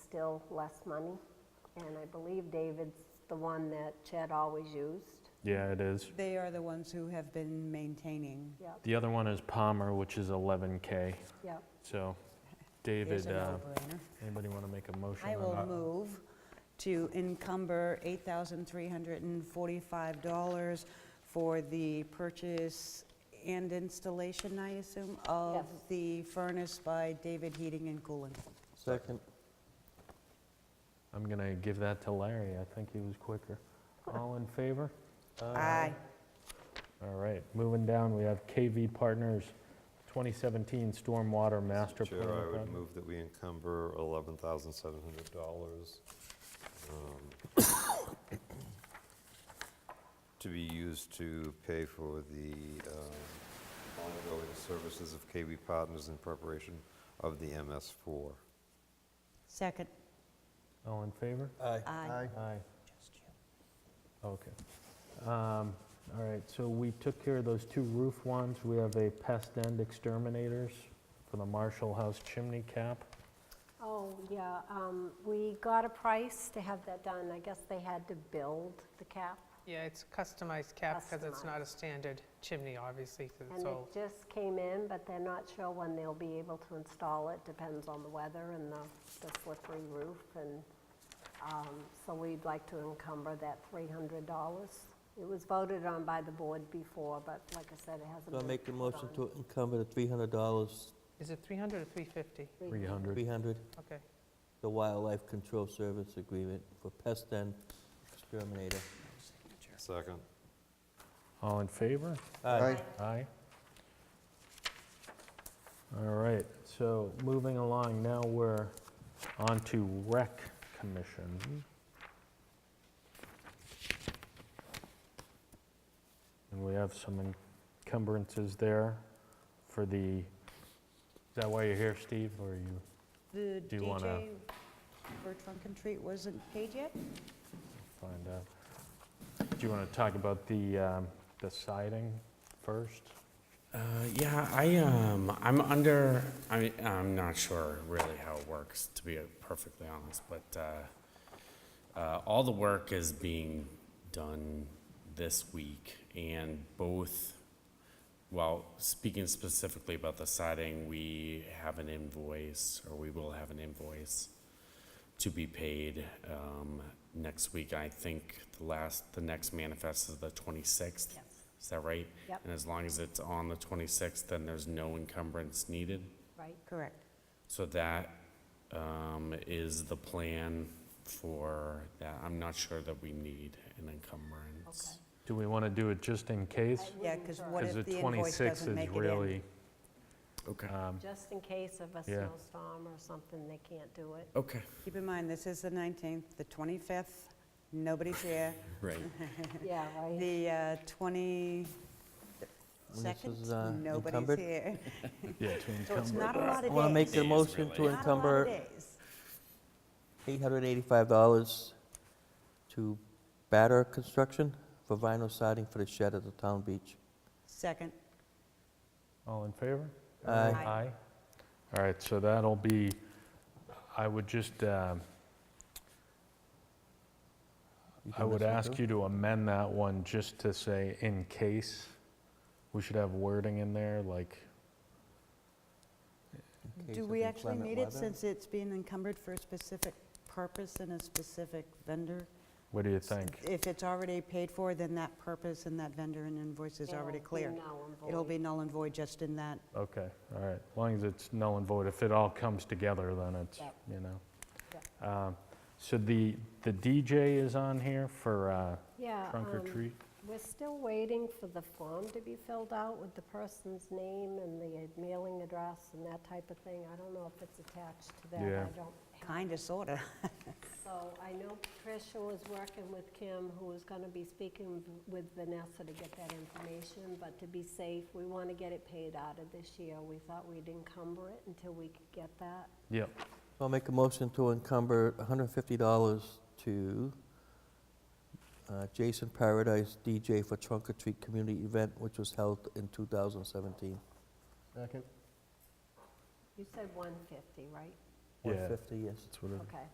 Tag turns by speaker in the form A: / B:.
A: still less money. And I believe David's the one that Chad always used.
B: Yeah, it is.
C: They are the ones who have been maintaining.
A: Yep,
B: The other one is Palmer, which is 11K.
A: yep.
B: So,
C: There's
B: David,
C: a
B: uh,
C: no-brainer.
B: anybody want to make a motion?
C: I
B: on
C: will
B: that?
C: move to encumber $8,345 for the purchase and installation, I assume, of
A: Yes.
C: the furnace by David Heating and Cooling.
D: Second.
B: I'm going to give that to Larry. I think he was quicker. All in favor? Uh,
C: Aye.
B: All right, moving down, we have KV Partners 2017 Stormwater Master Plan.
D: Chair, I would
B: Project.
D: move that we encumber $11,700 um, to be used to pay for the um, ongoing services of KB Partners in preparation of the MS4.
C: Second.
B: All in favor?
C: Aye.
B: Aye. Okay. Um, All right, so we took care of those two roof ones. We have a pest end exterminators for the Marshall House chimney cap.
A: Oh, yeah, um, we got a price to have that done. I guess they had to build the cap.
E: Yeah, it's customized cap because it's not a standard chimney, obviously, because
A: And
E: it's
A: it
E: old.
A: just came in, but they're not sure when they'll be able to install it. Depends on the weather and the the slippery roof. And um, so we'd like to encumber that $300. It was voted on by the board before, but like I said, it hasn't been.
F: I'll make the motion
A: done.
F: to encumber the $300,
E: Is it 300 or 350?
B: 300.
F: 300,
E: Okay.
F: the Wildlife Control Service Agreement for Pest and Exterminator.
D: Second.
B: All in favor?
F: Aye.
B: Aye. All right, so moving along, now we're on to Rec Commission. And we have some encumbrances there for the, is that why you're here, Steve, or you?
C: The
B: Do you wanna-
C: DJ for Trunk and Treat wasn't paid yet?
B: Find out. Do you want to talk about the, um, the siding first?
G: Uh, yeah, I um, I'm under. I I'm not sure really how it works to be perfectly honest, but uh, uh, all the work is being done this week, and both. Well, speaking specifically about the siding, we have an invoice, or we will have an invoice to be paid um, next week. I think the last, the next manifest is the 26th.
A: Yes,
G: Is that right?
A: Yep.
G: And as long as it's on the 26th, then there's no encumbrance needed.
A: right.
C: Correct.
G: So that um, is the plan for that. I'm not sure that we need an encumbrance.
B: Do we want to do it just in case?
A: I
C: Yeah,
A: wouldn't
C: 'cause
A: try.
C: what
B: Because
C: if
B: the
C: the invoice
B: 26
C: doesn't
B: is
C: make it in?
B: really,
G: Okay.
B: um,
A: Just in case of a
B: Yeah.
A: snowstorm or something, they can't do it.
G: Okay.
C: Keep in mind, this is the 19th, the 25th, nobody's here.
G: Right.
A: Yeah, right.
C: The uh, 22nd,
F: When this is, uh,
C: nobody's
F: encumbered?
C: here.
B: yeah, to
C: So it's not a
B: encumber.
C: lot
F: I
C: of
F: want to make
C: days.
F: the
G: Days,
F: motion
G: really.
F: to
C: Not a lot of
F: encumber
C: days.
F: $885 to Batter Construction for vinyl siding for the shed at the town beach.
C: Second,
B: All in favor?
F: Aye.
C: Aye.
B: All right, so that'll be, I would just, um,
F: You
B: I
F: doing
B: would
F: this one
B: ask
F: too?
B: you to amend that one just to say in case. We should have wording in there, like,
F: In case
C: do
F: of
C: we actually
F: inclement
C: need it
F: weather.
C: since it's being encumbered for a specific purpose and a specific vendor?
B: what do you think?
C: If it's already paid for, then that purpose and that vendor and invoice is already
A: It'll be
C: clear.
A: null and
C: It'll
A: void.
C: be null and void just in that.
B: Okay, all right, as long as it's null and void, if it all comes together, then it's,
A: Yep.
B: you know. Um, So the, the DJ is on here for uh,
A: Yeah.
B: trunk or
A: um,
B: treat?
A: We're still waiting for the form to be filled out with the person's name and the mailing address and that type of thing. I don't know if it's attached to that.
B: Yeah.
A: I don't have
C: Kind of, sort of.
A: So I know Patricia was working with Kim, who is going to be speaking v- with Vanessa to get that information, but to be safe, we want to get it paid out of this year. We thought we'd encumber it until we could get that.
B: Yep,
F: I'll make a motion to encumber $150 to uh, Jason Paradise DJ for Trunk or Treat Community Event, which was held in 2017.
A: You said 150, right?
B: yeah,
F: 150, yes.
B: that's what it
F: Mm-hmm.
A: Okay.